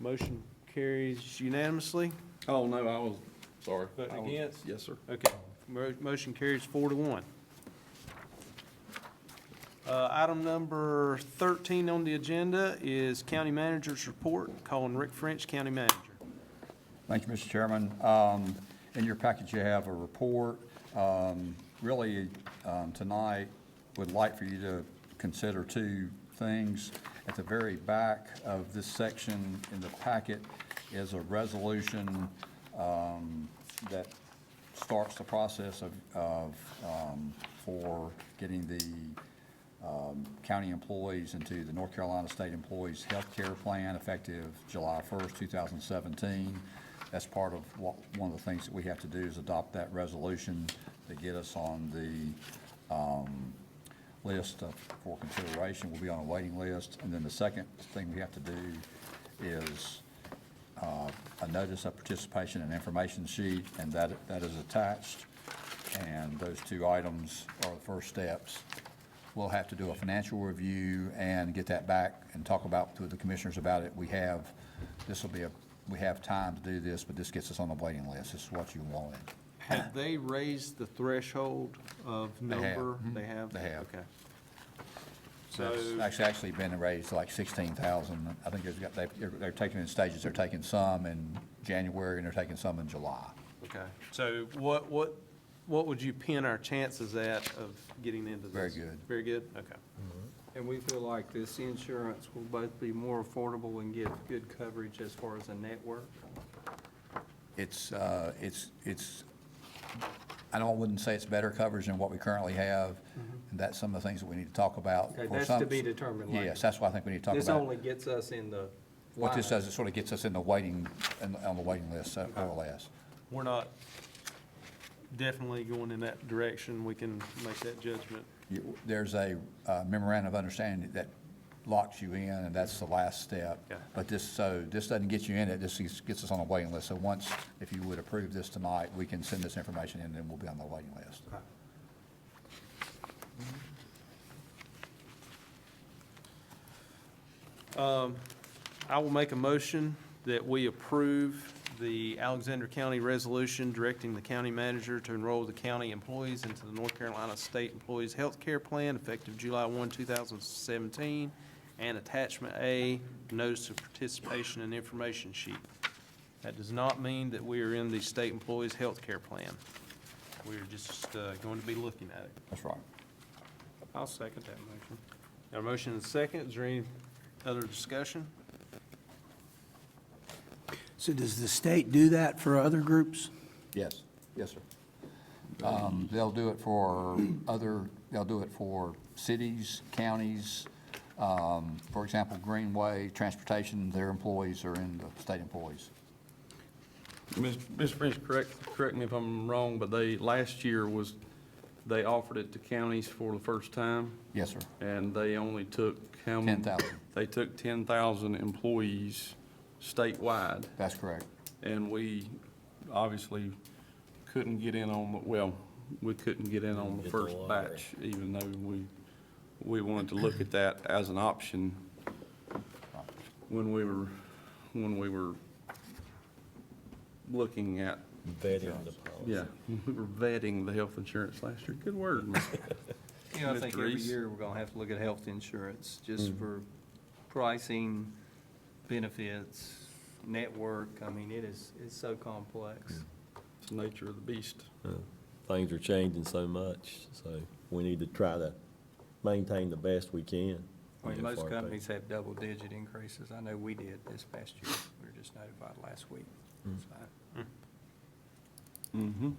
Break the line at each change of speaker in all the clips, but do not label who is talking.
Motion carries unanimously.
Oh, no, I was, sorry.
Voting
I was-
against?
Yes, sir.
Okay, Mo- motion carries four to one. Uh, Item number 13 on the agenda is County Manager's Report, calling Rick French, County Manager.
Thank you, Mr. Chairman. Um, In your package, you have a report. Um, Really, um, tonight, would like for you to consider two things. At the very back of this section in the packet is a resolution um, that starts the process of, of, um, for getting the county employees into the North Carolina State Employees Health Care Plan effective July 1st, 2017. That's part of what, one of the things that we have to do is adopt that resolution to get us on the um, list of- for consideration. We'll be on a waiting list. And then the second thing we have to do is uh, a notice of participation and information sheet, and that, that is attached. And those two items are the first steps. We'll have to do a financial review and get that back and talk about, to the commissioners about it. We have, this will be a, we have time to do this, but this gets us on the waiting list. This is what you wanted.
Have they raised the threshold of
have.
number?
Mhm.
They have?
They have.
Okay. So,
That's actually, actually been raised to like sixteen thousand. I think there's got, they, they're taking it in stages. They're taking some in January and they're taking some in July.
okay, so what, what, what would you pin our chances at of getting into this?
Very good.
Very good, okay.
And we feel like this insurance will both be more affordable and give good coverage as far as a network.
It's, uh, it's, it's, I don't, wouldn't say it's better coverage than what we currently have, and that's some of the things that we need to talk about.
Mm-hmm. Okay,
For
that's
some-
to be determined later.
Yes, that's why I think we need to talk
This
about,
only gets us in the
what this
line.
does, it sort of gets us in the waiting, in- on the waiting list, uh, more or less.
We're not definitely going in that direction. We can make that judgment.
You- There's a uh, memorandum of understanding that locks you in, and that's the last step.
Yeah.
But this, so, this doesn't get you in it, this is- gets us on the waiting list. So once, if you would approve this tonight, we can send this information in, and then we'll be on the waiting list.
Um, I will make a motion that we approve the Alexander County Resolution directing the county manager to enroll the county employees into the North Carolina State Employees Health Care Plan effective July 1, 2017, and Attachment A, Notice of Participation and Information Sheet. That does not mean that we are in the State Employees Health Care Plan. We're just uh, going to be looking at it.
That's right.
I'll second that motion.
Got a motion and a second. Is there any other discussion?
So does the state do that for other groups?
Yes, yes, sir. Um, They'll do it for other, they'll do it for cities, counties. um, For example, Greenway, transportation, their employees are in the state employees.
Ms. Ms. French, correct, correct me if I'm wrong, but they, last year was, they offered it to counties for the first time,
Yes, sir.
and they only took how many?
10,000.
They took ten thousand employees statewide,
That's correct.
and we obviously couldn't get in on, the well, we couldn't get in on the first batch, even though we, we wanted to look at that as an option when we were, when we were looking at
vetting the policy.
Yeah, we were vetting the health insurance last year. Good word. man.
You know, I think
Mr.
every
Reese?
year, we're gonna have to look at health insurance, just for pricing, benefits, network. I mean, it is, it's so complex.
It's the nature of the beast.
Yeah. Things are changing so much, so we need to try to maintain the best we can.
I mean,
Yeah, for
most
our
companies have double-digit increases. I know we did this past year. We were just notified last week. So-
Mm-hmm.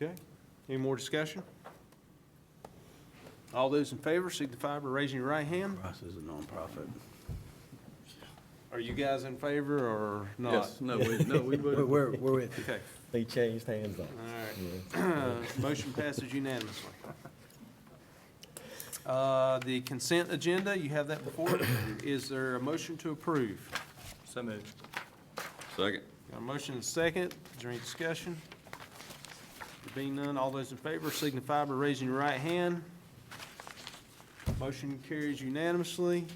Okay, any more discussion? All those in favor signify by raising your right hand.
Ross is a nonprofit.
Are you guys in favor or not?
Yes, no, we, no, we
Where,
would.
where, where we-
Okay,
people. They changed hands on.
all
us.
right.
Yeah.
Motion passes unanimously. Uh, The consent agenda, you have that before. Is there a motion to approve?
So moved.
Second.
Got a motion and a second. Is there any discussion? There being none, all those in favor signify by raising your right hand. Motion carries unanimously.